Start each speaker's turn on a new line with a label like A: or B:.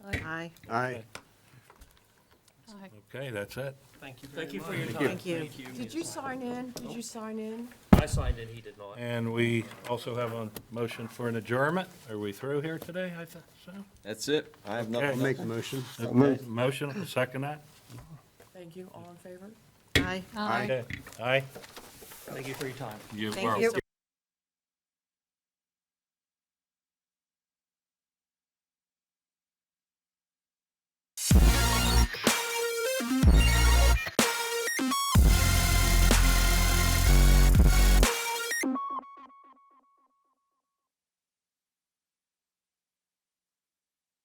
A: Aye.
B: Aye.
C: Okay, that's it.
D: Thank you Thank you for your time.
A: Thank you.
E: Did you sign in? Did you sign in?
D: I signed in, he did not.
C: And we also have a motion for an adjournment. Are we through here today, I think so?
F: That's it. I have
C: Okay.
B: I'll
F: nothing.
B: make the motion.
C: Okay, Motion, I'll second that?
E: Thank you, all in favor?
A: Aye.
C: Okay. Aye?
D: Thank you for your time.
C: You
A: Thank
C: were
A: you.